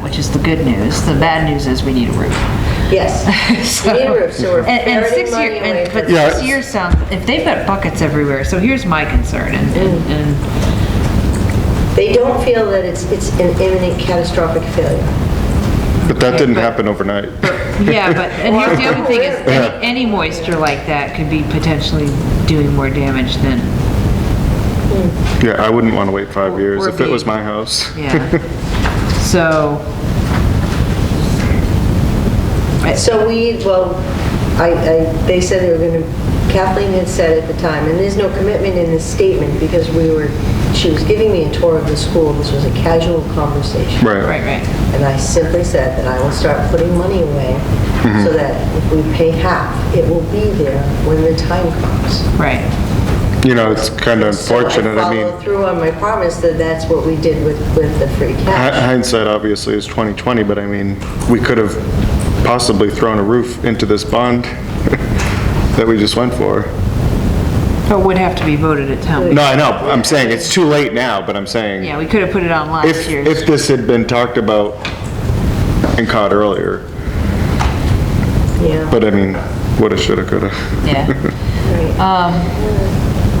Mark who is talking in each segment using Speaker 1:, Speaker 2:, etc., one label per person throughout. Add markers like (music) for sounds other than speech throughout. Speaker 1: which is the good news. The bad news is we need a roof. (laughs)
Speaker 2: (laughs) Yes.
Speaker 1: So-
Speaker 2: We need a roof, so we're
Speaker 1: And- and
Speaker 2: ferreting
Speaker 1: six year-
Speaker 2: money
Speaker 1: and-
Speaker 2: away
Speaker 1: But
Speaker 2: from.
Speaker 3: Yeah.
Speaker 1: six years sounds, if they've got buckets everywhere, so here's my concern, and- and, and
Speaker 2: They don't feel that it's, it's an imminent catastrophic failure.
Speaker 3: But that didn't
Speaker 1: But-
Speaker 3: happen overnight.
Speaker 2: Mm.
Speaker 1: Yeah,
Speaker 2: (laughs)
Speaker 1: but, and here's the other thing is,
Speaker 3: Yeah.
Speaker 1: any any moisture like that could be potentially doing more damage than,
Speaker 3: Yeah, I wouldn't want to wait five years
Speaker 1: or
Speaker 3: if it was
Speaker 1: be-
Speaker 3: my house.
Speaker 2: (laughs)
Speaker 1: yeah. So,
Speaker 2: So we, well, I, I, they said they were going to, Kathleen had said at the time, and there's no commitment in this statement because we were, she was giving me a tour of the school. This was a casual conversation.
Speaker 3: Right.
Speaker 1: right, right,
Speaker 2: And I simply said that I will start putting money away
Speaker 3: Mm-hmm.
Speaker 2: so that if we pay half, it will be there when the time comes.
Speaker 1: right.
Speaker 3: You know, it's kind of unfortunate.
Speaker 2: So
Speaker 3: I
Speaker 2: I
Speaker 3: mean,
Speaker 2: follow through on my promise that that's what we did with, with the free
Speaker 3: hi-
Speaker 2: cash.
Speaker 3: hindsight obviously is 2020, but I mean, we could have possibly thrown a roof into this bond (laughs) that we just went for.
Speaker 1: But would have to be voted at town. meeting.
Speaker 3: No, I know, I'm saying it's too late now, but I'm saying.
Speaker 1: Yeah, we could have put it on last
Speaker 3: If,
Speaker 1: year's.
Speaker 3: if this had been talked about and caught earlier,
Speaker 2: Yeah,
Speaker 3: but I mean, woulda, shoulda, coulda.
Speaker 1: Yeah,
Speaker 2: (laughs)
Speaker 1: Um,
Speaker 2: right.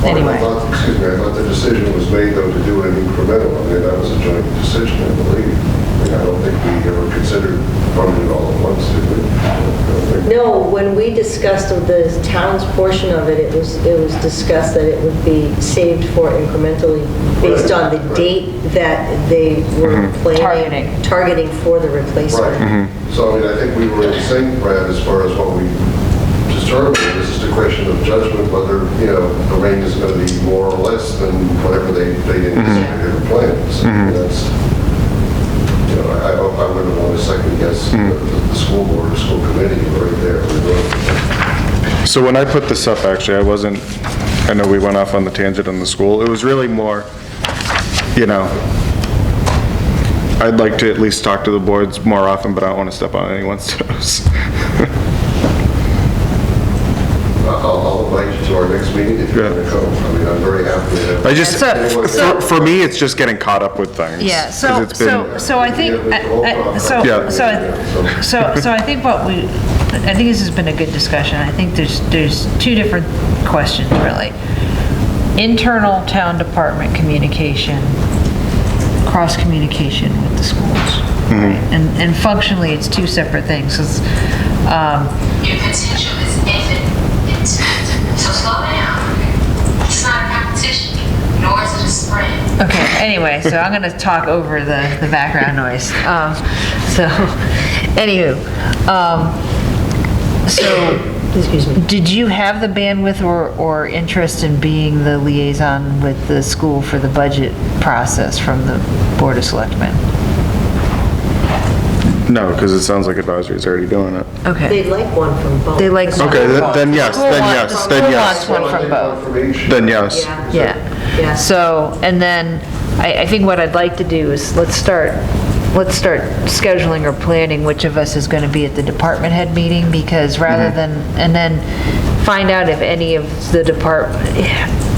Speaker 1: Anyway.
Speaker 4: I thought- Excuse me, I thought the decision was made though to do an incremental, I mean, that was a joint decision, I believe. I mean, I don't think we ever considered funding it all at once, did we? I don't think-
Speaker 2: No, when we discussed of the town's portion of it, it was, it was discussed that it would be saved for incrementally based on the
Speaker 4: Right, right.
Speaker 2: date that they were
Speaker 1: Mm-hmm. Targeting.
Speaker 2: planning, targeting for the
Speaker 1: Mm-hmm.
Speaker 2: replacement.
Speaker 4: Right, so I mean, I think we were in sync, Brad, as far as what we determined, this is a question of judgment, whether, you know, the range is going to be more or less than whatever they, they anticipated or planned. So that's, you know, I, I wouldn't want to second guess the, the school board or school committee right there.
Speaker 3: So when I put this up, actually, I wasn't, I know we went off on the tangent on the school. It was really more, you know, I'd like to at least talk to the boards more often, but I don't want to step on anyone's (laughs) toes.
Speaker 4: I'll, I'll invite you to our next meeting if you're going to come. I mean, I'm very happy to have.
Speaker 3: I just,
Speaker 1: So-
Speaker 3: for for me, it's just getting caught up with things.
Speaker 1: yeah,
Speaker 3: 'Cause
Speaker 1: so,
Speaker 3: it's been-
Speaker 1: so, so I think, I- I- so,
Speaker 3: Yeah.
Speaker 1: so, so, so I think what we, I think this has been a good discussion. I think there's, there's two different questions, really. Internal town department communication, cross-communication with the schools. right?
Speaker 3: Mm-hmm.
Speaker 1: And, and functionally, it's two separate things, 'cause, um,
Speaker 5: Your potential is infinite. So slow down. It's not a competition, nor is it a sprint.
Speaker 1: Okay, anyway, so I'm gonna talk over the, the background noise. Um, so, (laughs) anywho, um, so,
Speaker 2: Excuse me.
Speaker 1: did you have the bandwidth or, or interest in being the liaison with the school for the budget process from the Board of Selectmen?
Speaker 3: No, because it sounds like advisory's already doing it.
Speaker 1: Okay,
Speaker 2: They'd like one from both.
Speaker 1: they like.
Speaker 3: Okay, th- then yes,
Speaker 1: School
Speaker 3: then
Speaker 1: wants-
Speaker 3: yes,
Speaker 1: the school
Speaker 3: then yes.
Speaker 1: wants one from both.
Speaker 3: Then yes.
Speaker 2: Yeah,
Speaker 1: Yeah.
Speaker 2: yeah.
Speaker 1: So, and then, I, I think what I'd like to do is, let's start, let's start scheduling or planning which of us is going to be at the department head meeting, because rather than,
Speaker 3: Mm-hmm.
Speaker 1: and then find out if any of the department,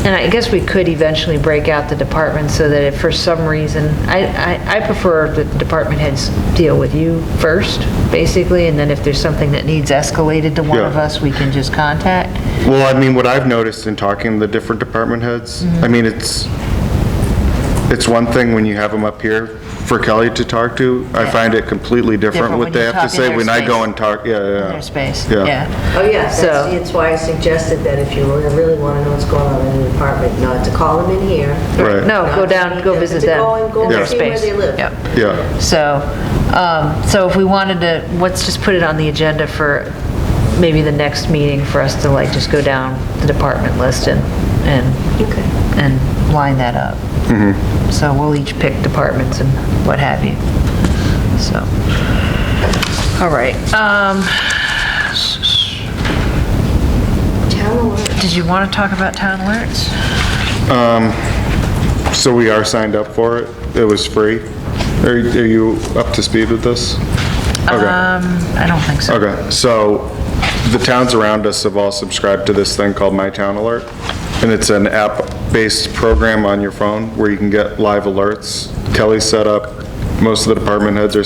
Speaker 1: and I guess we could eventually break out the department so that if for some reason, I, I, I prefer that the department heads deal with you first, basically, and then if there's something that needs escalated to one
Speaker 3: Yeah.
Speaker 1: of us, we can just contact.
Speaker 3: Well, I mean, what I've noticed in talking to the different department heads, I mean, it's, it's one thing when you have them up here for Kelly to talk to. I find it completely different
Speaker 1: Different
Speaker 3: what
Speaker 1: when
Speaker 3: they
Speaker 1: you
Speaker 3: have to
Speaker 1: talk in
Speaker 3: say
Speaker 1: their
Speaker 3: when I
Speaker 1: space.
Speaker 3: go and talk, yeah, yeah.
Speaker 1: Their space,
Speaker 3: Yeah.
Speaker 1: yeah.
Speaker 2: Oh, yeah,
Speaker 1: So-
Speaker 2: that's, that's why I suggested that if you were to really want to know what's going on in the apartment, not to call them in here.
Speaker 3: Right.
Speaker 1: No, go down, go visit them.
Speaker 2: Go and- go
Speaker 1: in their
Speaker 2: and see where
Speaker 1: space.
Speaker 2: they live.
Speaker 1: Yep.
Speaker 3: Yeah,
Speaker 1: So, um, so if we wanted to, let's just put it on the agenda for maybe the next meeting for us to like just go down the department list and, and,
Speaker 2: Okay.
Speaker 1: and line that up.
Speaker 3: Mm-hmm.
Speaker 1: So we'll each pick departments and what have you. So, all right. Um,
Speaker 2: Town alert.
Speaker 1: did you want to talk about town alerts?
Speaker 3: so we are signed up for it. It was free. Are are you up to speed with this? Okay.
Speaker 1: Um, I don't think so.
Speaker 3: Okay, so the towns around us have all subscribed to this thing called My Town Alert, and it's an app-based program on your phone where you can get live alerts. Kelly's set up, most of the department heads are